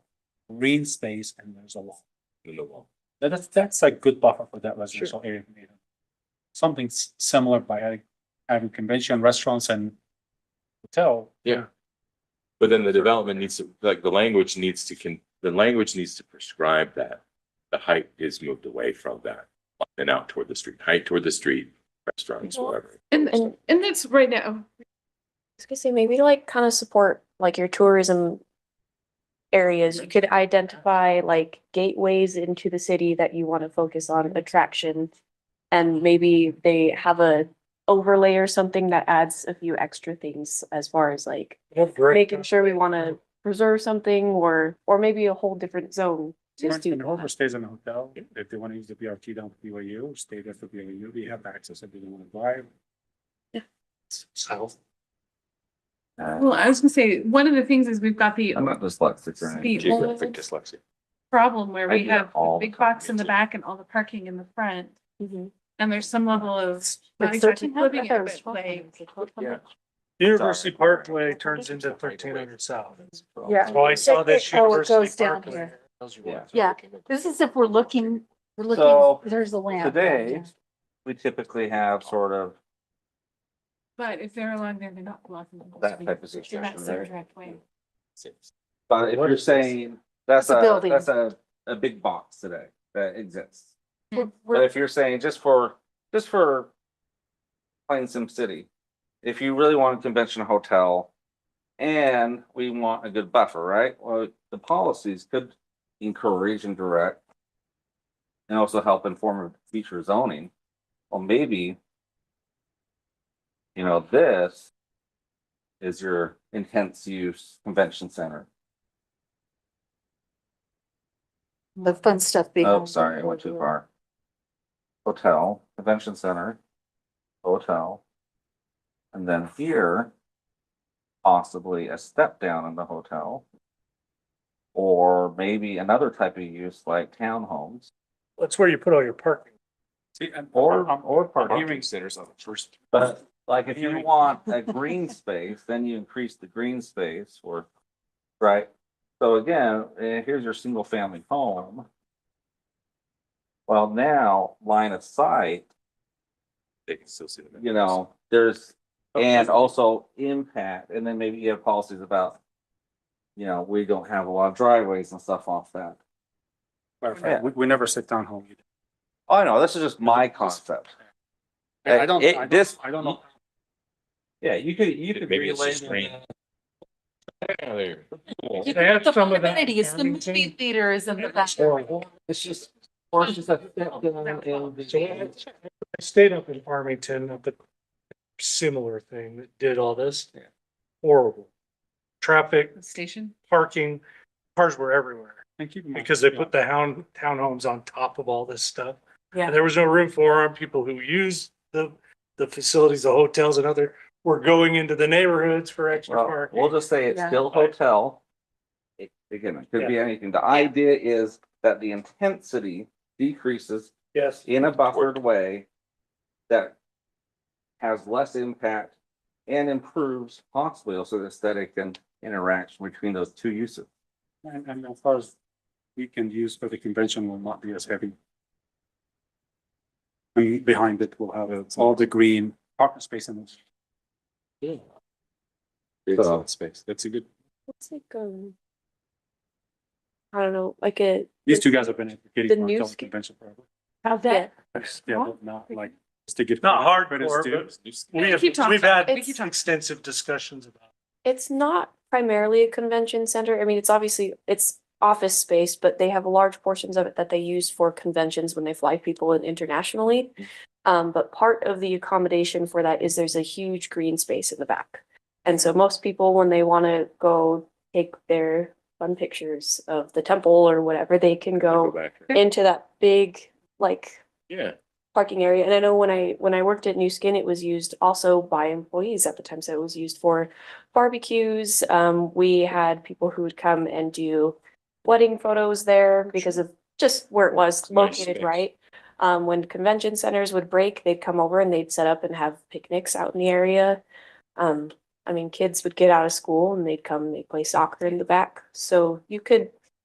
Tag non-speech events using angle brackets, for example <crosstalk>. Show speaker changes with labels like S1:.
S1: green space and there's a wall. That- That's, that's a good buffer for that residential area. Something s- similar by having- having convention restaurants and hotel.
S2: Yeah. But then the development needs to, like, the language needs to can, the language needs to prescribe that. The height is moved away from that and out toward the street, height toward the street, restaurants, whatever.
S3: And,
S4: And-
S3: and that's right now,
S4: was gonna say, maybe like kind of support like your tourism areas. You could identify like gateways into the city that you want to focus on attraction. And maybe they have a overlay or something that adds a few extra things as far as like making sure we want to preserve something or, or maybe a whole different zone. Just do
S1: When whoever
S4: that.
S1: stays in a hotel, if they want to use the BRT down to BYU, stay there for BYU, we have access if they don't want to drive.
S3: Yeah.
S1: South.
S5: Uh,
S3: well, I was gonna say, one of the things is we've got the
S6: I'm not dyslexic or anything.
S3: The old
S2: Geographic dyslexia.
S3: problem where
S6: I
S3: we
S6: do
S3: have
S6: that
S3: the
S6: all the
S3: big box in the
S6: time.
S3: back and all the parking in the front.
S4: Mhm.
S3: And there's some level of not
S4: Like 1300?
S3: exactly living
S4: I
S3: it,
S4: thought it was
S3: but like,
S4: 1200.
S7: University
S6: Sorry.
S7: Parkway turns into thirteen hundred south.
S4: Yeah.
S7: So I saw this
S5: Oh, it
S7: University
S5: goes down
S7: Parkway.
S5: here.
S6: Yeah.
S5: Yeah. This is if we're looking, we're
S6: So,
S5: looking, there's the lamp.
S6: Today, we typically have sort of,
S3: but if they're along there, they're not blocking. the whole
S6: That
S3: street.
S6: type of
S3: They're
S6: situation
S3: not so
S6: there.
S3: direct way.
S6: but if you're saying, that's
S5: It's a
S6: a,
S5: building.
S6: that's a, a big box today that exists.
S5: We're-
S6: But
S5: we're-
S6: if you're saying just for, just for playing Sim City, if you really want a convention hotel and we want a good buffer, right? Well, the policies could encourage and direct and also help inform future zoning. Well, maybe you know, this is your intense use convention center.
S5: The fun stuff being.
S6: Oh, sorry, I went too far. Hotel, convention center, hotel. And then here, possibly a step down in the hotel. Or maybe another type of use like townhomes
S7: That's where you put all your parking.
S1: See, and-
S6: or,
S1: I'm-
S6: or parking.
S2: Hearing centers on the first.
S6: But like if you want <laughs> a green space, then you increase the green space or, right? So again, eh, here's your single family home. Well, now line of sight,
S2: They can still see the.
S6: you know, there's, and also impact, and then maybe you have policies about. You know, we don't have a lot of driveways and stuff off that.
S1: Clarify,
S6: Yeah.
S1: we, we never sit down home. either.
S6: Oh, no, this is just my concept.
S1: I I don't,
S6: Uh, It-
S1: I don't,
S6: this-
S1: I don't know.
S6: Yeah, you could, you could.
S2: Maybe it's just
S6: relabel
S2: green.
S6: that.
S2: Yeah, there.
S7: They have
S5: The
S7: some of that.
S5: amenities, the movie
S7: Farmington.
S5: theater is in the back.
S6: It's just, or it's just a step down in the-
S7: So I I stayed up in Farmington, up at similar thing that did all this.
S6: Yeah.
S7: Horrible. Traffic,
S3: The Station.
S7: parking, cars were everywhere.
S1: And keep in mind-
S7: because they
S1: yeah.
S7: put the hound, townhomes on top of all this stuff.
S5: Yeah.
S7: And there was no room for them. People who use the, the facilities, the hotels and other, were going into the neighborhoods for extra
S6: Well,
S7: parking.
S6: we'll just say it's
S5: Yeah.
S6: still hotel. It, again, it could be anything. The idea is that the intensity decreases
S7: Yes.
S6: in a buffered way that has less impact and improves possibly also the aesthetic and interaction between those two uses.
S1: And, and as far as weekend use for the convention will not be as heavy. And behind it, we'll have all the green parking space and it's-
S2: It's
S6: So-
S2: not space. That's a good.
S4: It's like, um, I don't know, like a,
S1: these two guys have been
S4: The
S1: advocating for
S4: new
S1: hotel
S4: ski-
S1: convention forever.
S5: How's
S4: yeah,
S5: that?
S1: Yeah, but not like, just to give.
S7: Not hard,
S1: credit
S7: Laura,
S1: to-
S7: but-
S2: It's new.
S7: We have,
S3: Keep talking.
S7: we've had
S4: We keep talking.
S7: extensive discussions about. it.
S4: It's not primarily a convention center. I mean, it's obviously, it's office space, but they have large portions of it that they use for conventions when they fly people in internationally. Um, but part of the accommodation for that is there's a huge green space in the back. And so most people, when they want to go take their fun pictures of the temple or whatever, they can
S2: Go
S4: go
S2: back.
S4: into that big, like,
S2: Yeah.
S4: parking area. And I know when I, when I worked at New Skin, it was used also by employees at the time. So it was used for barbecues. Um, we had people who would come and do wedding photos there because of just where it was
S2: nice
S4: located,
S2: space.
S4: right? Um, when convention centers would break, they'd come over and they'd set up and have picnics out in the area. Um, I mean, kids would get out of school and they'd come, and they'd play soccer in the back. So you could